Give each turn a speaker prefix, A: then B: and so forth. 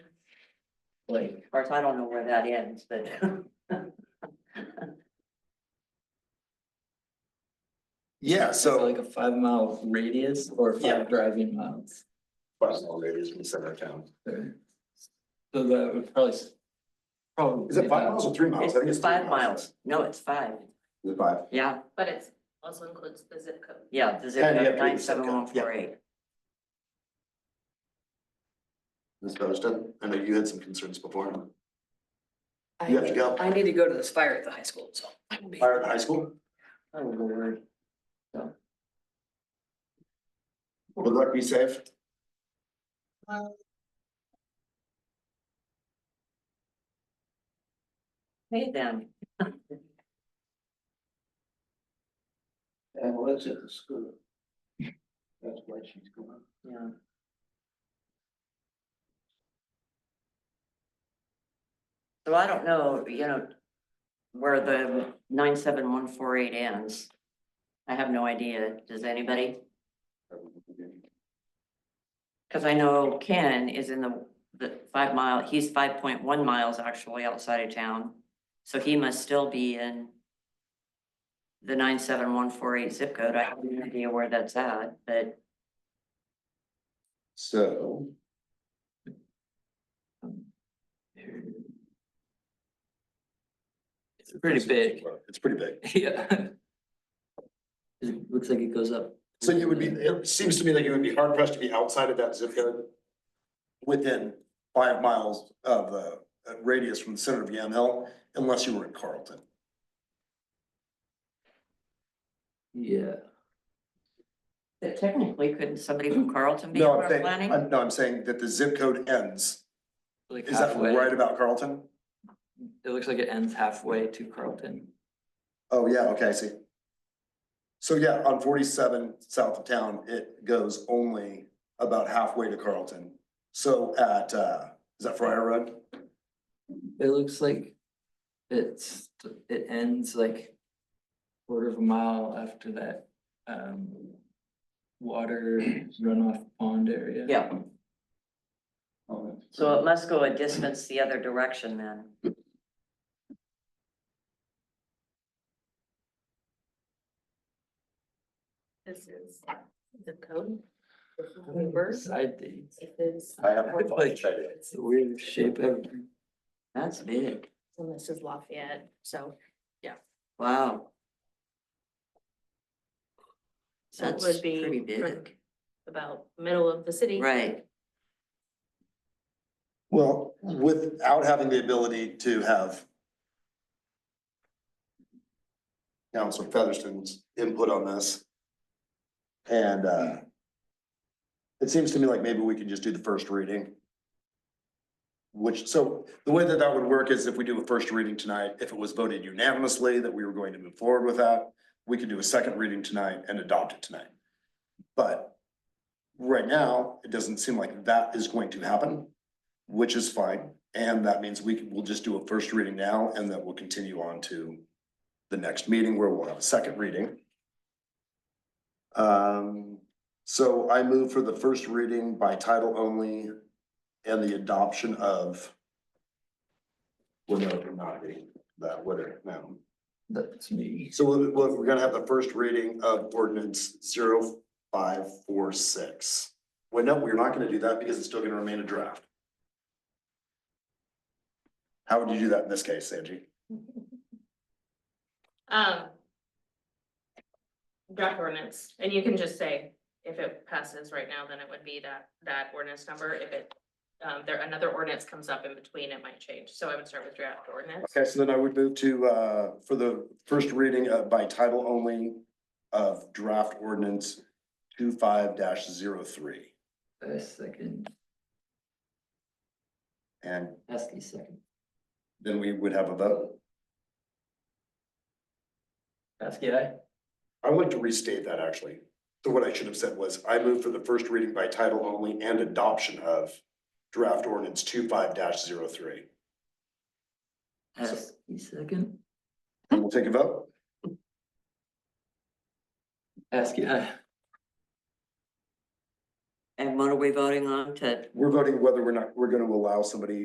A: Like, of course, I don't know where that ends, but.
B: Yeah,
C: So
B: so,
C: like a five mile radius or
B: Yeah.
C: five driving miles.
D: Personal radius from the center of town.
C: So so that would probably. s- Probably.
D: Is it five miles or three miles? I think
A: It's
D: three
A: five miles. No, it's five.
D: Is it five?
A: Yeah,
E: But it's also includes the zip code.
A: yeah, the zip
B: And you have
A: code
B: to
A: nine
B: use zip
A: seven
B: code,
A: one
B: yeah.
A: four eight.
D: Ms. Featherston, I know you had some concerns before.
F: I-
D: You have to go.
F: I need to go to this fire at the high school, so. I will be-
D: Fire at the high school?
A: Oh, Lord. So,
D: Good luck, be safe.
A: hey then,
G: And let's at the school. That's why she's going.
A: yeah. So I don't know, you know, where the nine seven one four eight ends. I have no idea. Does anybody? Cause I know Ken is in the, the five mile, he's five point one miles actually outside of town. So he must still be in the nine seven one four eight zip code. I have no idea where that's at, but
D: So.
C: It's pretty big,
D: It's pretty big.
C: yeah. It looks like it goes up.
D: So you would be, it seems to me like it would be hard pressed to be outside of that zip code. Within five miles of the uh, radius from the center of Yam Hill, unless you were in Carlton.
C: Yeah.
A: but technically couldn't somebody from Carlton be in
D: No, I'm
A: our
D: saying,
A: planning?
D: I'm- no, I'm saying that the zip code ends.
C: Like
D: Is that
C: halfway,
D: right
C: it
D: about Carlton?
C: looks like it ends halfway to Carlton.
D: Oh, yeah, okay, I see. So yeah, on forty-seven south of town, it goes only about halfway to Carlton. So at, uh, is that Friar Road?
C: It looks like it's, it ends like quarter of a mile after that, um, water runoff pond area.
A: Yeah, so it must go a distance the other direction then.
E: This is the code.
C: Side dates.
E: It is.
D: I have.
C: It's like, it's the weirdest shape ever.
A: That's big.
E: And this is Lafayette, so.
A: Wow.
E: so it
A: That's
E: would be
A: pretty
E: from
A: big,
E: About middle of the city.
A: right?
D: Well, without having the ability to have Council Featherston's input on this. And, uh, it seems to me like maybe we can just do the first reading. Which, so the way that that would work is if we do a first reading tonight, if it was voted unanimously that we were going to move forward with that, we could do a second reading tonight and adopt it tonight. But right now, it doesn't seem like that is going to happen which is fine. And that means we can, we'll just do a first reading now and then we'll continue on to the next meeting where we'll have a second reading. Um, so I move for the first reading by title only and the adoption of well, no, it would not be that, would it? No.
C: That's me.
D: So we're, we're we're gonna have the first reading of ordinance zero five four six. Well, no, we're not gonna do that because it's still gonna remain a draft. How would you do that in this case, Angie?
E: Um. Draft ordinance, and you can just say, if it passes right now, then it would be that, that ordinance number, if it. Um, there, another ordinance comes up in between, it might change, so I would start with draft ordinance.
D: Okay, so then I would move to, uh, for the first reading uh, by title only of draft ordinance two five dash zero three.
C: A second,
D: And
C: ask a E second,
D: then we would have a vote.
C: ask E I.
D: I would like to restate that actually. So what I should have said was, I move for the first reading by title only and adoption of draft ordinance two five dash zero three.
C: ask a E second,
D: And we'll take a vote.
C: ask E I.
A: And what are we voting on to
D: We're voting whether we're not, we're gonna allow somebody